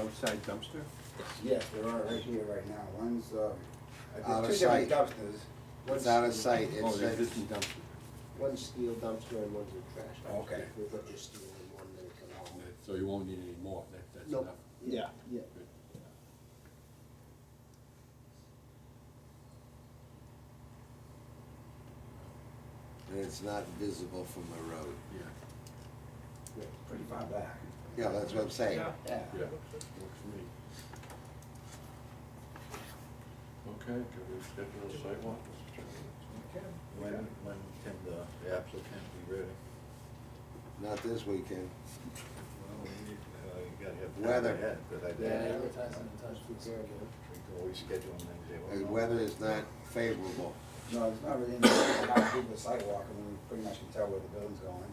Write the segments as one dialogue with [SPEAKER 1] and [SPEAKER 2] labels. [SPEAKER 1] outside dumpster?
[SPEAKER 2] Yes, there are right here right now. One's, uh,
[SPEAKER 3] Out of
[SPEAKER 2] there's two different
[SPEAKER 3] sight.
[SPEAKER 2] dumpsters.
[SPEAKER 3] It's
[SPEAKER 2] One's
[SPEAKER 3] out of
[SPEAKER 2] steel-
[SPEAKER 3] sight,
[SPEAKER 1] Oh,
[SPEAKER 3] it's,
[SPEAKER 1] the
[SPEAKER 3] it's,
[SPEAKER 1] existing dumpster.
[SPEAKER 2] One's steel dumpster and one's a trash dumpster.
[SPEAKER 3] Okay.
[SPEAKER 2] We've got your steel and one that can haul.
[SPEAKER 1] So you won't need any more, that, that's
[SPEAKER 2] Nope.
[SPEAKER 1] enough.
[SPEAKER 2] Yeah, yeah.
[SPEAKER 1] Good.
[SPEAKER 3] and it's not visible from the road.
[SPEAKER 1] Yeah,
[SPEAKER 2] yeah, Pretty far back.
[SPEAKER 3] Yeah, that's what I'm saying.
[SPEAKER 2] Yeah.
[SPEAKER 1] yeah, works for me.
[SPEAKER 4] Okay, can we schedule a sidewalk, Mr. Chairman?
[SPEAKER 5] Okay. When, when can the the applicant be ready?
[SPEAKER 3] Not this weekend.
[SPEAKER 5] Well, we need, uh, you gotta have. time
[SPEAKER 3] Weather.
[SPEAKER 5] ahead, But I
[SPEAKER 2] Yeah,
[SPEAKER 5] think
[SPEAKER 2] advertising and touch with Gary.
[SPEAKER 5] we can always schedule them and they
[SPEAKER 3] The
[SPEAKER 5] will.
[SPEAKER 3] weather is not favorable.
[SPEAKER 2] No, it's not really, anything about people sidewalk, I mean, we pretty much can tell where the building's going.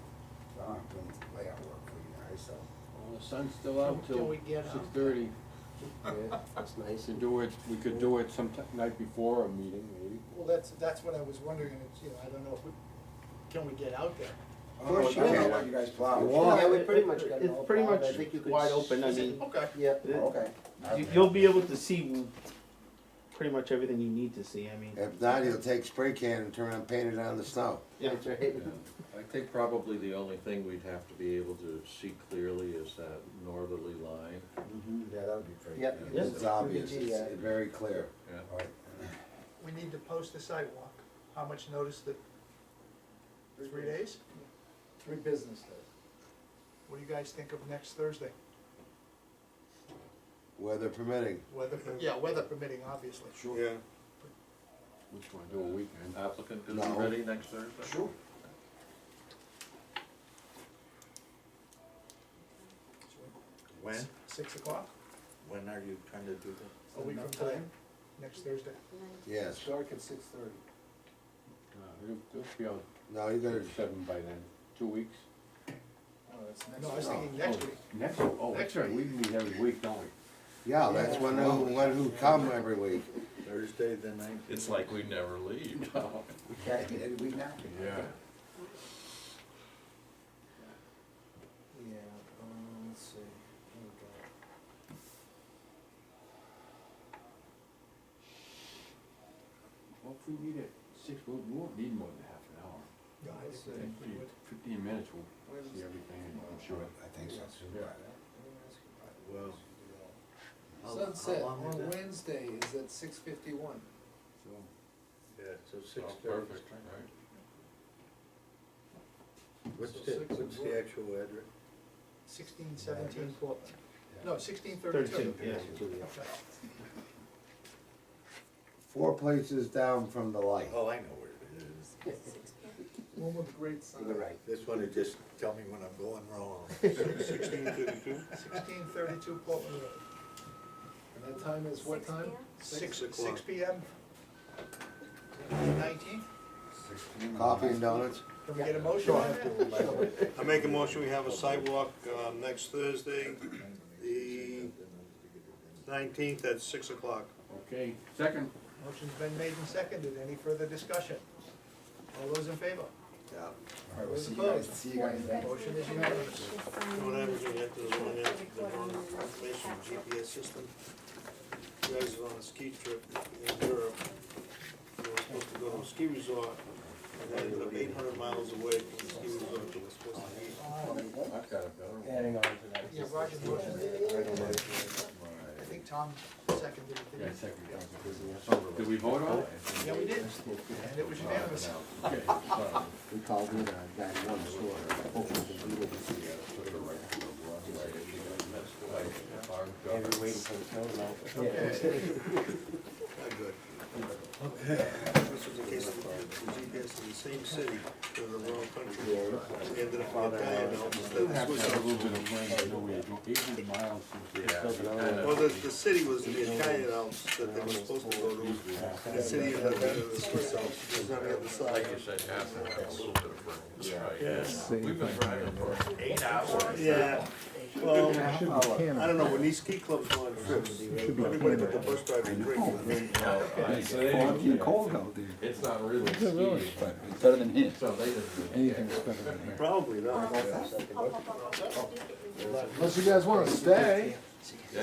[SPEAKER 2] So I'm doing layout work for you guys, so.
[SPEAKER 6] Well, the sun's still out till
[SPEAKER 7] uh,
[SPEAKER 6] six thirty.
[SPEAKER 2] Yeah, that's
[SPEAKER 1] We
[SPEAKER 2] nice.
[SPEAKER 1] could do it, we could do it sometime, night before a meeting, maybe.
[SPEAKER 7] Well, that's, that's what I was wondering, and it's, you know, I don't know if we, can we get out there?
[SPEAKER 2] Of course, you know what you guys plow.
[SPEAKER 3] Well,
[SPEAKER 2] Yeah, we pretty much got it all
[SPEAKER 8] It's pretty
[SPEAKER 2] plowed.
[SPEAKER 8] much wide open, I mean,
[SPEAKER 7] Okay.
[SPEAKER 8] yeah.
[SPEAKER 2] Oh, Okay.
[SPEAKER 8] You- You'll be able to see pretty much everything you need to see, I mean.
[SPEAKER 3] If not, he'll take spray can and turn around and paint it on the snow.
[SPEAKER 8] Yeah.
[SPEAKER 4] I think probably the only thing we'd have to be able to see clearly is that northerly line.
[SPEAKER 2] Mm-hmm. Yeah, that would be pretty.
[SPEAKER 8] Yep.
[SPEAKER 2] good.
[SPEAKER 8] Yeah.
[SPEAKER 3] It's obvious,
[SPEAKER 2] Yeah.
[SPEAKER 3] it's very clear.
[SPEAKER 4] Yeah.
[SPEAKER 2] All right.
[SPEAKER 7] We need to post the sidewalk. How much notice that, three days?
[SPEAKER 2] Three business days.
[SPEAKER 7] What do you guys think of next Thursday?
[SPEAKER 3] Weather permitting,
[SPEAKER 7] Weather, per- yeah, weather permitting, obviously.
[SPEAKER 1] Sure.
[SPEAKER 5] Yeah.
[SPEAKER 1] Which one, do a weekend?
[SPEAKER 4] Applicant gonna
[SPEAKER 3] No.
[SPEAKER 4] be ready next Thursday?
[SPEAKER 2] Sure.
[SPEAKER 5] When,
[SPEAKER 7] Six o'clock,
[SPEAKER 5] when are you trying to do that?
[SPEAKER 7] a week from today, next Thursday.
[SPEAKER 3] yes.
[SPEAKER 2] Dark at six thirty.
[SPEAKER 1] Uh, It'll, it'll be out
[SPEAKER 3] No, you gotta,
[SPEAKER 1] seven by then, two weeks.
[SPEAKER 7] No, I was thinking next week.
[SPEAKER 1] Oh, Next, week. oh,
[SPEAKER 7] Next
[SPEAKER 1] that's right, we meet every week, don't we?
[SPEAKER 3] yeah, that's one who, one who come every week.
[SPEAKER 5] Thursday, the nineteenth?
[SPEAKER 4] It's like we never leave.
[SPEAKER 2] Okay, any week now?
[SPEAKER 4] Yeah.
[SPEAKER 2] Yeah, um, let's see. Here we go.
[SPEAKER 1] Well, if we need it, six, we'll, we won't need more than half an hour.
[SPEAKER 7] No, I didn't think we would.
[SPEAKER 1] Fifteen minutes, we'll see everything, I'm sure.
[SPEAKER 2] I think so.
[SPEAKER 1] Yeah.
[SPEAKER 5] Well,
[SPEAKER 9] Sunset on Wednesday is at six fifty-one.
[SPEAKER 5] yeah, so
[SPEAKER 4] Oh,
[SPEAKER 5] six thirty.
[SPEAKER 4] Perfect, right?
[SPEAKER 5] What's
[SPEAKER 9] So
[SPEAKER 5] the,
[SPEAKER 9] six
[SPEAKER 5] what's
[SPEAKER 9] is what?
[SPEAKER 5] the actual address?
[SPEAKER 7] Sixteen, seventeen, four, no, sixteen, thirty-two.
[SPEAKER 8] Thirty-two, yeah.
[SPEAKER 3] Four places down from the light.
[SPEAKER 5] Oh, I know where it is.
[SPEAKER 9] One with the great sign.
[SPEAKER 2] You're right.
[SPEAKER 5] This one, it just tell me when I'm going wrong.
[SPEAKER 4] Sixteen thirty-two?
[SPEAKER 7] Sixteen, thirty-two Portland Road.
[SPEAKER 9] And that time is what time?
[SPEAKER 7] Six,
[SPEAKER 5] o'clock.
[SPEAKER 7] six P M. Nineteenth,
[SPEAKER 3] Coffee and donuts?
[SPEAKER 7] can we get a motion on that?
[SPEAKER 10] I make a motion, we have a sidewalk uh, next Thursday, the nineteenth at six o'clock.
[SPEAKER 1] Okay, second,
[SPEAKER 7] Motion's been made and seconded, any further discussion? All those in favor?
[SPEAKER 3] Yeah.
[SPEAKER 2] All right, we'll see you guys, see you guys then.
[SPEAKER 7] Motion is unanimous.
[SPEAKER 10] What happens when you have to run in the wrong information GPS system? You guys are on a ski trip in Europe, you were supposed to go to a ski resort, and ended up eight hundred miles away from the ski resort you were supposed to be.
[SPEAKER 4] I've got a better one.
[SPEAKER 2] Adding on to that.
[SPEAKER 7] Yeah, Roger motioned it. I think Tom seconded it,
[SPEAKER 1] yeah,
[SPEAKER 7] didn't he?
[SPEAKER 1] second. Did we vote on it?
[SPEAKER 7] Yeah, we did, and it was unanimous.
[SPEAKER 1] Okay, sorry.
[SPEAKER 3] We called it, uh, that one store. Every waiting for the snow now.
[SPEAKER 7] Okay,
[SPEAKER 10] Not good. This was a case of the GPS in the same city, but in the wrong country. We ended up in Italian,
[SPEAKER 1] Still
[SPEAKER 10] almost,
[SPEAKER 1] have to have a
[SPEAKER 10] was,
[SPEAKER 1] little bit of rain, you know, we had eight hundred miles since.
[SPEAKER 4] Yeah.
[SPEAKER 10] well, the, the city was the Italian Alps that they were supposed to go to, and the city ended up in the Swiss Alps, it was on the other side.
[SPEAKER 4] Like you said, half an hour, a little bit of break. That's right. We've been driving for eight hours.
[SPEAKER 10] Yeah, well, I don't know, when these ski clubs go on trips, everybody but the bus driver drinks.
[SPEAKER 4] So they didn't-
[SPEAKER 1] cold out there.
[SPEAKER 4] It's not really skiing, but,
[SPEAKER 6] It's better than here.
[SPEAKER 4] so they didn't. really care.
[SPEAKER 6] Anything's better than here.
[SPEAKER 10] Probably not.
[SPEAKER 2] That's-
[SPEAKER 9] Unless you guys wanna stay.